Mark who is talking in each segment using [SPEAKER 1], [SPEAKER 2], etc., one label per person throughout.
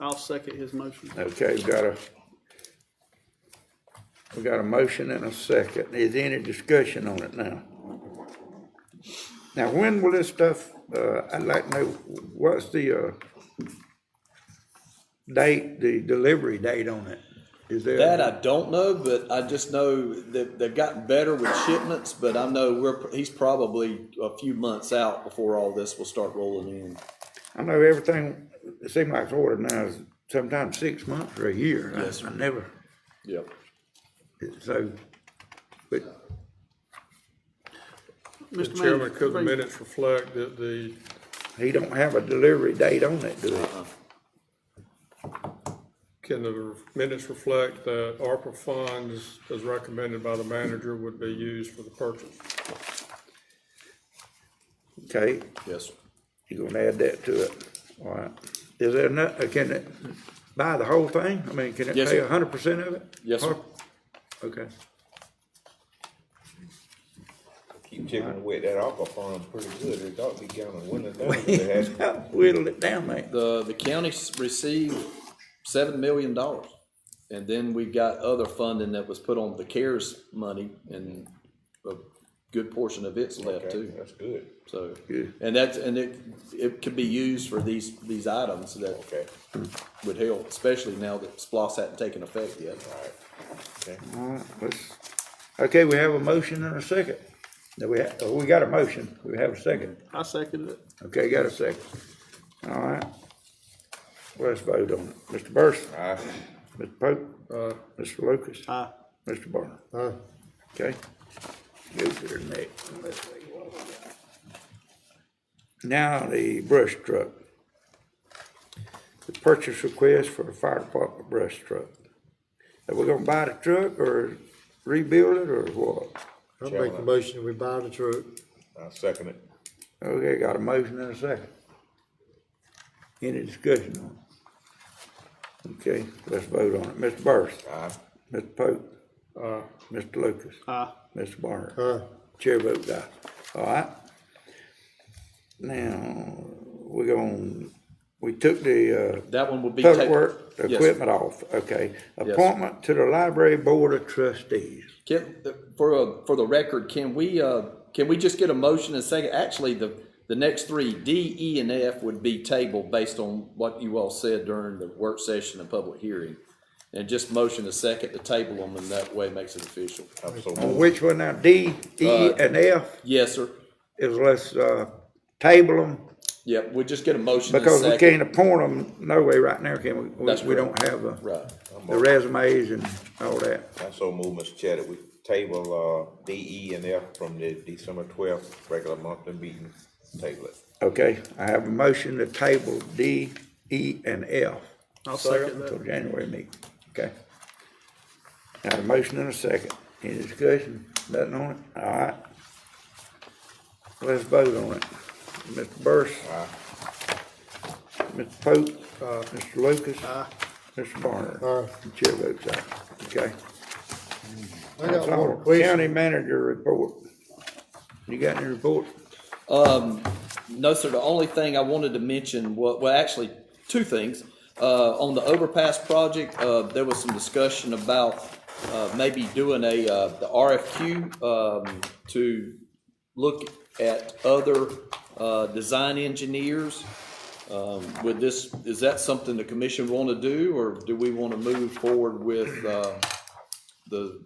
[SPEAKER 1] I'll second his motion.
[SPEAKER 2] Okay, we've got a, we've got a motion and a second. Is there any discussion on it now? Now, when will this stuff, uh, I'd like to know, what's the, uh, date, the delivery date on it? Is there?
[SPEAKER 3] That I don't know, but I just know that they've gotten better with shipments, but I know we're, he's probably a few months out before all this will start rolling in.
[SPEAKER 2] I know everything, it seems like it's ordered now is sometimes six months or a year. I-
[SPEAKER 3] Yes, sir.
[SPEAKER 2] I never,
[SPEAKER 3] Yep.
[SPEAKER 2] so, but
[SPEAKER 1] Mr. Manager,
[SPEAKER 4] Chairman, could the
[SPEAKER 1] please-
[SPEAKER 4] minutes reflect that the,
[SPEAKER 2] he don't have a delivery date on it, do
[SPEAKER 3] Uh-uh.
[SPEAKER 2] he?
[SPEAKER 4] can the minutes reflect that ARPA funds as recommended by the manager would be used for the purchase?
[SPEAKER 2] Okay,
[SPEAKER 3] Yes. sir.
[SPEAKER 2] You're gonna add that to it, all right. Is there not, uh, can it buy the whole thing? I mean, can it
[SPEAKER 3] Yes,
[SPEAKER 2] pay
[SPEAKER 3] sir.
[SPEAKER 2] a hundred percent of it?
[SPEAKER 3] Yes, sir.
[SPEAKER 2] Okay,
[SPEAKER 5] Keep chipping away at that aqua farm pretty good. It ought to be going to winter down. if it has-
[SPEAKER 2] whittle it down, man.
[SPEAKER 3] The, the county s- received seven million dollars. And then we got other funding that was put on the CARES money and a good portion of it's left
[SPEAKER 5] Okay,
[SPEAKER 3] too.
[SPEAKER 5] That's good.
[SPEAKER 3] So,
[SPEAKER 2] Good.
[SPEAKER 3] and that's, and it, it could be used for these, these items that
[SPEAKER 5] Okay,
[SPEAKER 3] would help, especially now that SPOS hadn't taken effect yet.
[SPEAKER 5] all right. Okay.
[SPEAKER 2] All right, let's, okay, we have a motion and a second. Now, we, ha- oh, we got a motion, we have a second.
[SPEAKER 1] I second it.
[SPEAKER 2] Okay, got a second. All right. Well, Let's vote on it. Mr. Burson,
[SPEAKER 5] Aye.
[SPEAKER 2] Mr. Pope,
[SPEAKER 4] Uh,
[SPEAKER 2] Mr. Lucas,
[SPEAKER 1] Aye.
[SPEAKER 2] Mr. Barner.
[SPEAKER 4] uh,
[SPEAKER 2] Okay. Go to the next. one. Let's see what we got. Now, the brush truck. The purchase request for a fire department brush truck. Are we gonna buy the truck or rebuild it or what?
[SPEAKER 6] I'll make the motion, we buy the truck.
[SPEAKER 5] I'll second it.
[SPEAKER 2] Okay, got a motion and a second. Any discussion on it? Okay, let's vote on it. Mr. Burris,
[SPEAKER 5] Aye.
[SPEAKER 2] Mr. Pope,
[SPEAKER 4] uh,
[SPEAKER 2] Mr. Lucas,
[SPEAKER 1] Aye.
[SPEAKER 2] Mr. Barnard.
[SPEAKER 6] Aye.
[SPEAKER 2] Chair votes aye. All right. Now, we're going, we took the, uh,
[SPEAKER 3] That one would be.
[SPEAKER 2] public
[SPEAKER 3] ta-
[SPEAKER 2] work
[SPEAKER 3] Yes.
[SPEAKER 2] equipment off, okay.
[SPEAKER 3] Yes.
[SPEAKER 2] Appointment to the library board of trustees.
[SPEAKER 3] Can, for, uh, for the record, can we, uh, can we just get a motion and second? Actually, the, the next three, D, E, and F would be tabled based on what you all said during the work session and public hearing. And just motion a second to table them, and that way makes it official.
[SPEAKER 5] I'm so
[SPEAKER 2] On
[SPEAKER 5] moved.
[SPEAKER 2] which one now, D, E,
[SPEAKER 3] Uh,
[SPEAKER 2] and F,
[SPEAKER 3] Yes, sir.
[SPEAKER 2] is let's, uh, table them,
[SPEAKER 3] Yep, we just get a motion and a
[SPEAKER 2] because we
[SPEAKER 3] second.
[SPEAKER 2] can't appoint them, no way right now, can we? we?
[SPEAKER 3] That's
[SPEAKER 2] We
[SPEAKER 3] correct.
[SPEAKER 2] don't have, uh,
[SPEAKER 3] Right.
[SPEAKER 2] the resumes and all that.
[SPEAKER 5] I'm so moved, Mr. Chatter. We table, uh, D, E, and F from the December twelfth regular monthly meeting. Table it.
[SPEAKER 2] Okay, I have a motion to table D, E, and F.
[SPEAKER 1] I'll second
[SPEAKER 2] until
[SPEAKER 1] that.
[SPEAKER 2] January meeting, okay? Got a motion and a second, any discussion, nothing on it, all right? Let's vote on it. Mr. Burris? Mr. Pope? Mr. Lucas? Mr. Barnard?
[SPEAKER 6] Aye.
[SPEAKER 2] Chair votes aye, okay?
[SPEAKER 6] I
[SPEAKER 2] That's
[SPEAKER 6] got
[SPEAKER 2] all.
[SPEAKER 6] one question.
[SPEAKER 2] County manager report. You got any report?
[SPEAKER 3] No, sir, the only thing I wanted to mention, wa- well, actually, two things. Uh, on the overpass project, uh, there was some discussion about, uh, maybe doing a, uh, the RFQ, um, to look at other, uh, design engineers. Um, would this, is that something the commission want to do, or do we want to move forward with, uh, the,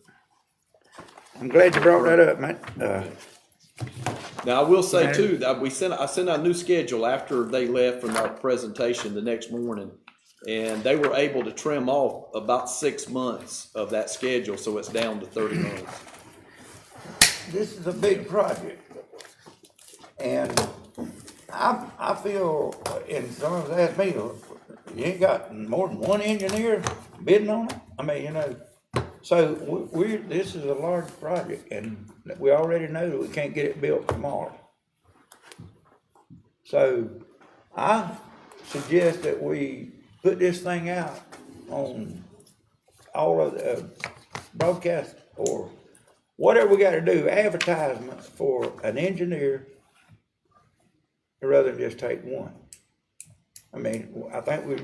[SPEAKER 2] I'm glad you brought that up, man, uh,
[SPEAKER 3] Now, I will say too, that we sent, I sent out a new schedule after they left from our presentation the next morning. And they were able to trim off about six months of that schedule, so it's down to thirty months.
[SPEAKER 7] this is a big project. And I, I feel, and someone's asked me, you ain't got more than one engineer bidding on it? I mean, you know,
[SPEAKER 2] So we- we're, this is a large project and we already know that we can't get it built tomorrow. So I suggest that we put this thing out on all of the uh, broadcast or whatever we gotta do, advertisements for an engineer rather than just take one. I mean, I think we